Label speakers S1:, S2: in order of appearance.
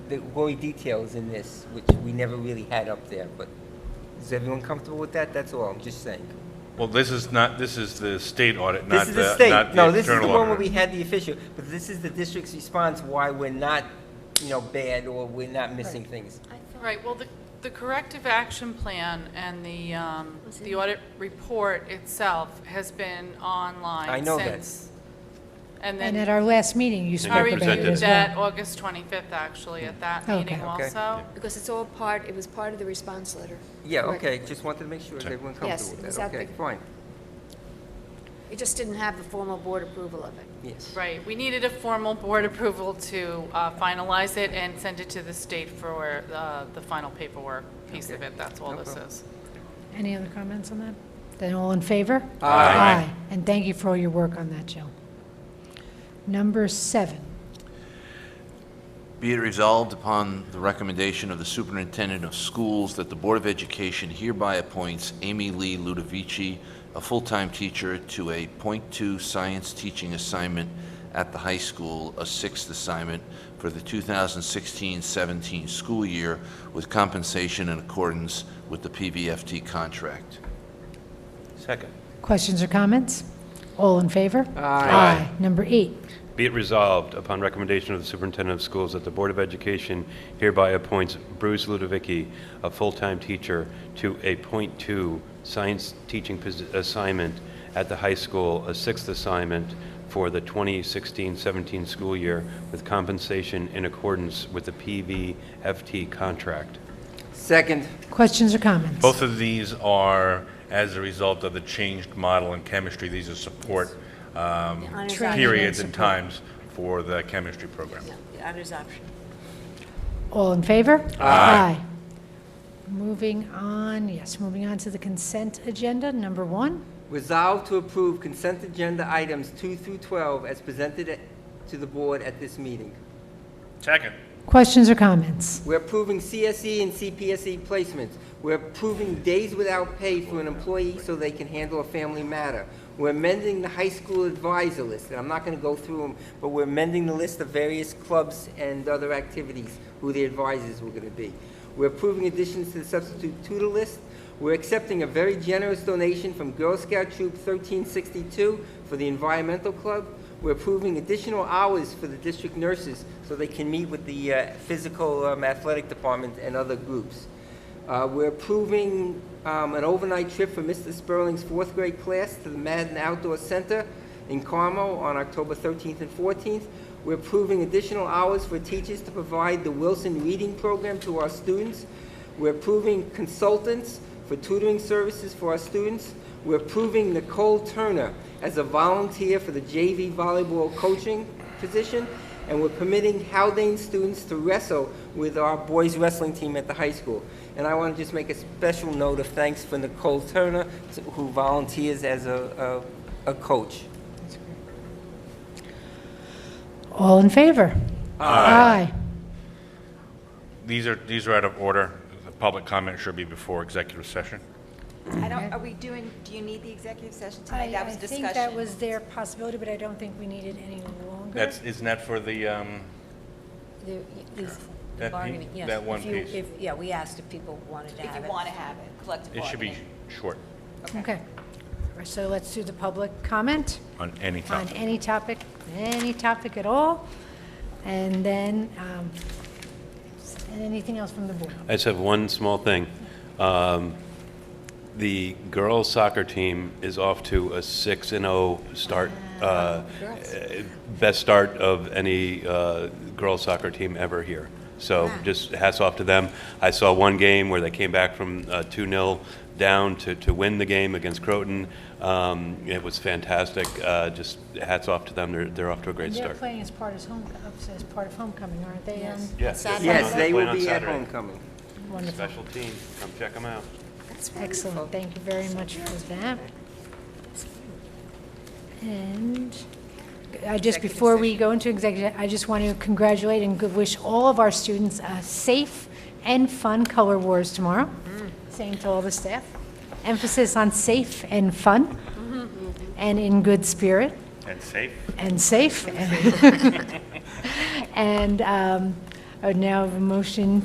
S1: the gory details in this, which we never really had up there, but is everyone comfortable with that? That's all, I'm just saying.
S2: Well, this is not, this is the state audit,
S1: This
S2: not
S1: is
S2: the,
S1: the
S2: not the internal
S1: state, no, this is the one where
S2: auditor.
S1: we had the official, but this is the district's response why we're not, you know, bad or we're not missing things.
S3: Right, well, the, the corrective action plan and the, um, the audit report itself has been online
S1: I know that.
S3: since. And
S4: And at
S3: then
S4: our last meeting, you
S3: I
S4: spoke about it
S3: reviewed
S4: as well.
S3: that August 25th, actually, at that
S4: Okay.
S3: meeting
S4: Okay.
S3: also.
S5: Because it's all part, it was part of the response letter.
S1: Yeah,
S5: Correct.
S1: okay, just wanted to make sure that everyone
S5: Yes,
S1: comfortable with that, okay,
S5: exactly.
S1: fine,
S5: It just didn't have the formal board approval of it.
S1: yes.
S3: Right, we needed a formal board approval to uh, finalize it and send it to the state for uh, the final paperwork piece of
S1: Okay.
S3: it, that's all
S1: No
S3: this
S1: problem.
S3: is.
S4: Any other comments on that? Then all in favor?
S2: Aye.
S4: And thank you for all your work on that, Jill. Number seven.
S6: Be it resolved upon the recommendation of the Superintendent of Schools that the Board of Education hereby appoints Amy Lee Ludovici, a full-time teacher, to a .2 science teaching assignment at the high school, a sixth assignment for the 2016-17 school year with compensation in accordance with the PVFT contract.
S2: Second.
S4: Questions or comments? All in favor?
S6: Aye.
S4: Number eight.
S7: Be it resolved, upon recommendation of the superintendent of schools, that the Board of Education hereby appoints Bruce Ludovicki, a full-time teacher, to a .2 science teaching pos- assignment at the high school, a sixth assignment for the 2016-17 school year, with compensation in accordance with the PVFT contract.
S1: Second,
S4: Questions or comments?
S2: Both of these are as a result of the changed model in chemistry. These are support um,
S5: Honors
S4: True.
S5: option.
S2: periods and times for the chemistry program.
S5: Yeah, the Honors option.
S4: All in favor?
S2: Aye.
S4: Moving on, yes, moving on to the consent agenda, number one.
S1: resolve to approve consent agenda items two through twelve as presented at- to the board at this meeting.
S2: Second.
S4: Questions or comments?
S1: We're approving CSE and CPSE E placements. We're approving days without pay for an employee so they can handle a family matter. We're amending the high school advisor list, and I'm not going to go through them, but we're amending the list of various clubs and other activities, who the advisors were going to be. We're approving additions to the substitute tutor list. We're accepting a very generous donation from Girl Scout Troop 1362 for the Environmental Club. We're approving additional hours for the district nurses so they can meet with the uh, physical um, athletic department and other groups. Uh, We're approving um, an overnight trip for Mr. Sperling's fourth grade class to the Madden Outdoor Center in Carmel on October 13th and 14th. We're approving additional hours for teachers to provide the Wilson Reading Program to our students. We're approving consultants for tutoring services for our students. We're approving Nicole Turner as a volunteer for the JV volleyball coaching position. And we're permitting Haldane students to wrestle with our boys wrestling team at the high school. And I want to just make a special note of thanks for Nicole Turner, t- who volunteers as a, a, a coach.
S4: All in favor? Aye.
S2: These are, these are out of order. The public comment should be before executive session.
S8: I don't, are we doing, do you need the executive session
S4: I
S8: tonight? That was
S4: I think that
S8: discussion.
S4: was their possibility, but I don't think we need it any longer.
S2: That's, isn't that for the, um,
S9: The- is
S2: That
S9: the
S2: pe-
S9: bargaining, yes.
S2: that one
S9: If you-
S2: piece.
S9: if- Yeah, we asked if people wanted to
S8: If
S9: have it.
S8: you want to have it, collective
S2: it should be
S8: bargaining.
S2: short
S4: Okay. So let's do the public comment
S2: on any
S4: on
S2: topic.
S4: any topic, any topic at all, and then, um, and anything else from the board.
S7: I just have one small thing. Um, The girls soccer team is off to a six and oh start, uh, eh, best start of any uh, girls soccer team ever here. So just hats off to them. I saw one game where they came back from uh, two 0 down to, to win the game against Croton. Um, It was fantastic. Uh, Just hats off to them. They're, they're off to a great
S4: They're
S7: start.
S4: playing as part as home, as part of homecoming, aren't they? Um,
S2: Yes.
S1: Yes, they
S7: Playing
S1: will
S7: on
S1: be at
S7: Saturday.
S1: homecoming.
S4: Wonderful.
S7: Special team. Come check them out.
S4: Excellent, thank you very much for that. And I just, before we go into executive, I just want to congratulate and good wish all of our students a safe and fun Color Wars tomorrow. Same to all the staff. Emphasis on safe and fun, and in good spirit
S2: And safe.
S4: and safe. And um, I would now have a motion